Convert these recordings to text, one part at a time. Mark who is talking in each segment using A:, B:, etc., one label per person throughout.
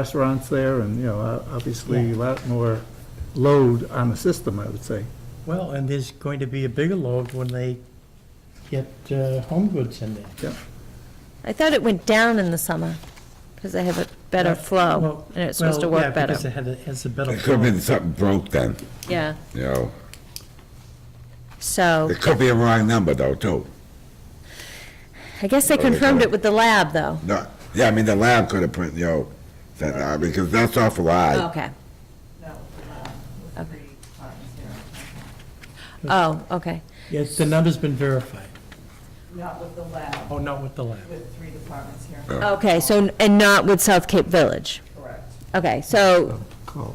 A: restaurants there, and, you know, o- obviously a lot more load on the system, I would say.
B: Well, and there's going to be a bigger load when they get uh, home goods in there.
C: I thought it went down in the summer, because they have a better
B: Well,
C: flow,
B: well,
C: and it's supposed to
B: Well, yeah,
C: work better.
B: Because it had a- has a better
D: It could have
B: flow.
D: been something broke then,
C: Yeah,
D: you know.
C: so,
D: It could be a wrong number though, too.
C: I guess they
D: Well, they
C: confirmed
D: don't-
C: it with the lab, though.
D: No, yeah, I mean, the lab could have put, you know, that, uh, because that's awful high.
C: Oh, Okay,
E: No, uh,
C: Okay.
E: three times here.
C: oh, okay,
B: Yes, the number's been verified.
E: Not with the lab,
B: Oh, not with the lab.
E: with three departments here.
D: Yeah.
C: okay, so, and not with South Cape Village.
E: Correct.
C: Okay, so,
A: Call.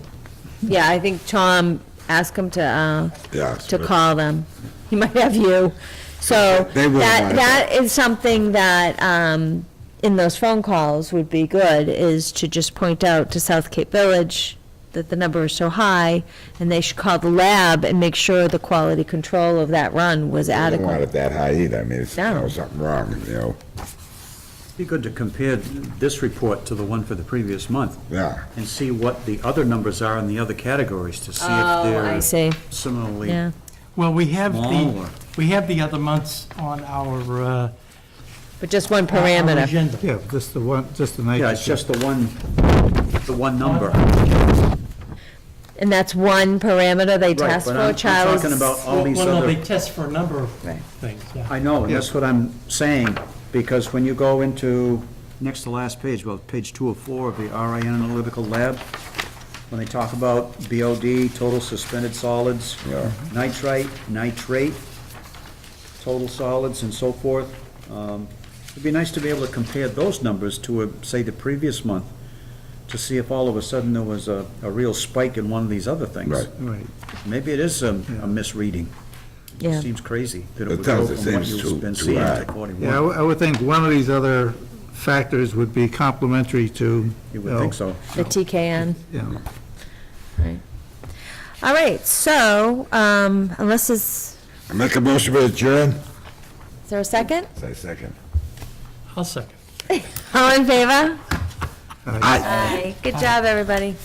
C: yeah, I think Tom, ask him to, uh,
D: Yes.
C: to call them. He might have you. So
D: They will
C: that,
D: want
C: that is something that, um, in those phone calls would be good, is to just point out to South Cape Village that the number is so high, and they should call the lab and make sure the quality control of that run was
D: I don't want
C: adequate.
D: it that high either, I mean, it's, you
C: No.
D: know, something wrong, you know,
F: Be good to compare this report to the one for the previous month
D: yeah.
F: and see what the other numbers are in the other categories to see if
C: Oh, I
F: they're
C: see,
F: similarly
C: yeah.
B: Well, we have
F: small
B: the,
F: or
B: we have the other months on our. uh,
C: But just one
B: our
C: parameter.
B: agenda.
A: Yeah, just the one, just the night.
F: Yeah, it's just the one, the one number.
C: And that's one parameter they
F: Right,
C: test
F: but
C: for,
F: I'm- I'm
C: Charles?
F: talking about all
B: Well,
F: these
B: no, they
F: other,
B: test for a number of
C: Right.
B: things, yeah.
F: I know, and that's what I'm saying, because when you go into, next to last page, well, page two of four of the RIN Analytical Lab, when they talk about BOD, total suspended solids,
D: Yeah.
F: nitrite, nitrate, total solids and so forth. Um, It'd be nice to be able to compare those numbers to, uh, say, the previous month, to see if all of a sudden there was a, a real spike in one of these other things.
D: Right.
A: Right,
F: Maybe it is um, a misreading.
C: Yeah.
F: Seems crazy that it
D: It
F: would go
D: does, it
F: from what
D: seems
F: you've
D: too-
F: been
D: too
F: seeing
D: high.
F: to
A: yeah, I w-
F: 41.
A: I would think one of these other factors would be complementary to,
F: You would think so.
C: The TKN?
A: you know,
C: All right, so, um, unless it's,
D: I Make a motion to adjourn?
C: is there a second?
D: Say second.
B: I'll second.
C: All in favor?
D: Aye.
C: Good job, everybody.